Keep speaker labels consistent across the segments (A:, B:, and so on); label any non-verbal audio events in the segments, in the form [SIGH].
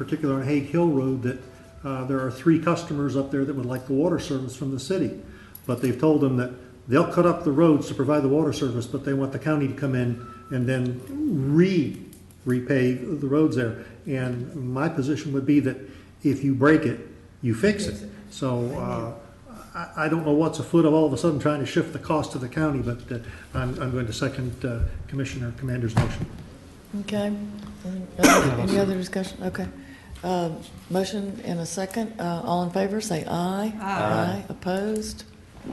A: particular on Hague Hill Road, that uh, there are three customers up there that would like the water service from the city. But they've told them that they'll cut up the roads to provide the water service, but they want the county to come in and then re, repave the roads there. And my position would be that if you break it, you fix it. So uh, I, I don't know what's afoot of all of a sudden trying to shift the cost to the county, but uh, I'm, I'm going to second uh, Commissioner Commander's motion.
B: Okay. Any other- Any other discussion? Okay. Uh, Motion and a second. Uh, All in favor, say aye. Aye. Opposed?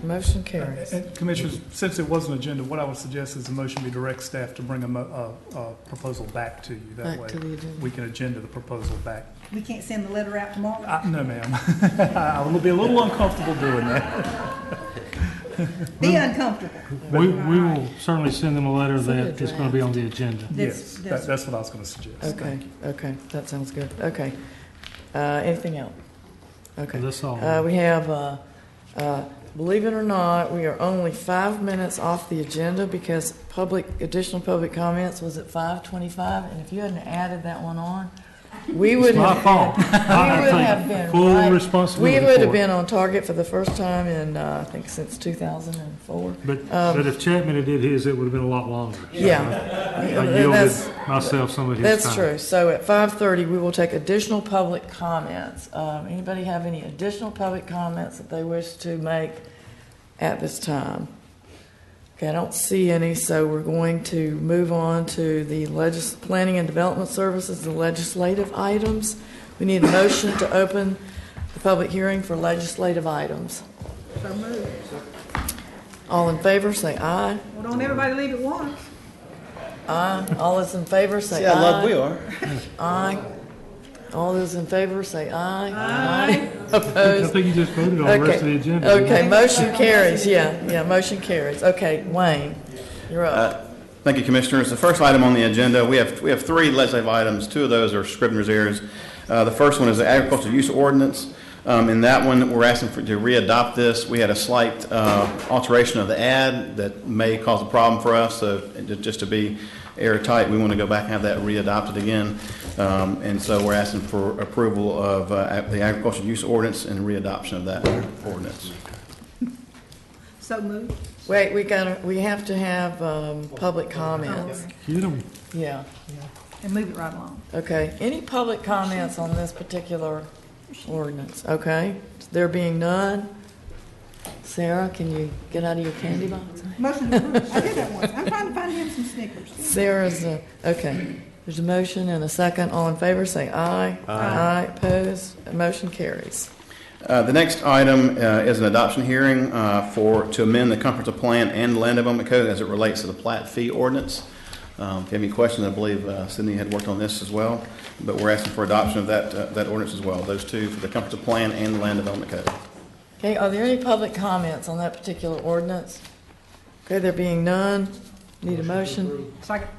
B: Motion carries.
C: And Commissioners, since it was an agenda, what I would suggest is the motion be direct staff to bring a, mo- a, a proposal back to you. That
B: Back
C: way,
B: to the agenda.
C: we can agenda the proposal back.
D: We can't send the letter out tomorrow?
C: Uh, no, ma'am. [LAUGHS] I will be a little uncomfortable doing that.
D: Be uncomfortable.
E: We, we will certainly send them a letter that it's gonna be on the agenda.
D: That's-
C: Yes,
D: that's-
C: that, that's what I was gonna suggest.
B: Okay, okay. That sounds good. Okay. Uh, Anything else? Okay.
E: That's all.
B: Uh, we have, uh, uh, believe it or not, we are only five minutes off the agenda because public, additional public comments was at five twenty-five, and if you hadn't added that one on, we would
E: my
B: have.
E: fault.
B: been-
E: [LAUGHS] I
B: We would
E: take
B: have been.
E: full
B: right-
E: responsibility
B: We would
E: for
B: have
E: it.
B: been on target for the first time in, uh, I think since two thousand and four.
E: But,
B: um,
E: but if Chapman had did his, it would've been a lot longer. I
B: Yeah.
E: yielded
B: That's-
E: myself some of his time.
B: That's true. So at five thirty, we will take additional public comments. Um, anybody have any additional public comments that they wish to make at this time? Okay, I don't see any, so we're going to move on to the legis, planning and development services, the legislative items. We need a motion to open the public hearing for legislative items.
D: So moved.
B: All in favor, say aye.
D: Well, don't everybody leave at once.
B: Aye. All those in favor, say aye.
F: See how loved we are.
B: Aye. All those in favor say aye. Aye. Opposed?
E: I think you just voted on the rest of the
B: Okay,
E: agenda.
B: okay, motion carries, yeah, yeah, motion carries. Okay, Wayne, you're
F: Uh,
B: up.
F: Thank you, Commissioners. The first item on the agenda, we have, we have three legislative items. Two of those are Scribner's errors. Uh, The first one is the agricultural use ordinance. Um, In that one, we're asking for, to re-adopt this. We had a slight uh, alteration of the ad that may cause a problem for us, so it- just to be airtight, we want to go back and have that re-adopted again. Um, And so we're asking for approval of uh, ag- the agricultural use ordinance and re-adoption of that ordinance.
D: So moved.
B: Wait, we gotta, we have to have, um, public comments,
E: Get 'em.
B: yeah.
D: And move it right along.
B: Okay, any public comments on this particular ordinance, okay? There being none, Sarah, can you get out of your candy box?
D: Motion to approve. I did that once. I'm trying to find him some Snickers.
B: Sarah's, uh, okay. There's a motion and a second. All in favor, say aye. Aye. Opposed? Motion carries.
F: Uh, The next item uh, is an adoption hearing uh, for, to amend the comprehensive plan and land development code as it relates to the plat fee ordinance. Um, If you have any questions, I believe uh, Sydney had worked on this as well, but we're asking for adoption of that, uh, that ordinance as well, those two for the comprehensive plan and the land development code.
B: Okay, are there any public comments on that particular ordinance? Okay, there being none, need a motion.
D: Second.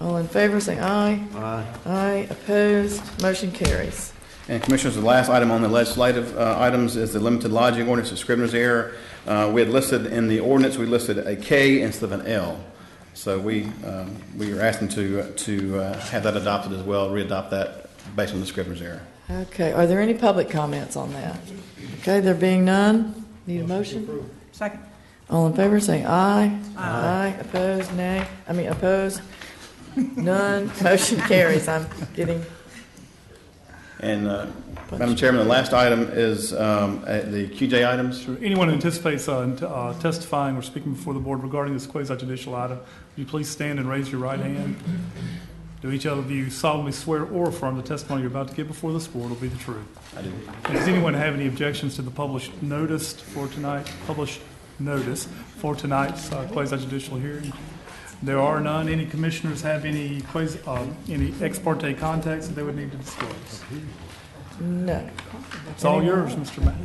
B: All in favor, say aye. Aye. Aye. Opposed? Motion carries.
F: And Commissioners, the last item on the legislative uh, items is the limited lodging ordinance of Scrivener's error. Uh, We had listed, in the ordinance, we listed a K instead of an L. So we, um, we are asking to, to uh, have that adopted as well, re-adopt that based on the Scrivener's error.
B: Okay, are there any public comments on that? Okay, there being none, need a motion?
D: Second.
B: All in favor, say aye. Aye. Opposed? Nay. I mean, opposed? None. Motion carries. I'm getting
F: And, uh, Madam Chairman, the last item is um, uh, the QJ items.
C: Sure. Anyone who anticipates uh, t- uh, testifying or speaking before the board regarding this quasi judicial item, will you please stand and raise your right hand? Do each of you solemnly swear or affirm the testimony you're about to give before this board will be the truth?
F: I do.
C: And Does anyone have any objections to the published notice for tonight, published notice for tonight's uh, quasi-judicial hearing? There are none. Any commissioners have any quasi, uh, any ex parte contacts that they would need to disclose?
B: No.
C: It's all yours, Mr. Matt.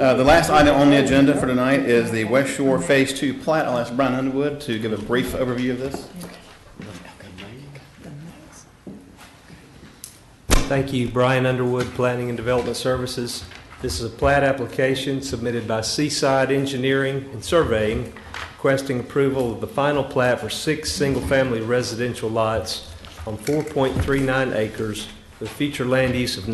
F: Uh, The last item on the agenda for tonight is the West Shore Phase Two plat. I'll ask Brian Underwood to give a brief overview of this.
G: Thank you, Brian Underwood, Planning and Development Services. This is a plat application submitted by Seaside Engineering and Surveying requesting approval of the final plat for six single-family residential lots on 4.39 acres with future land use of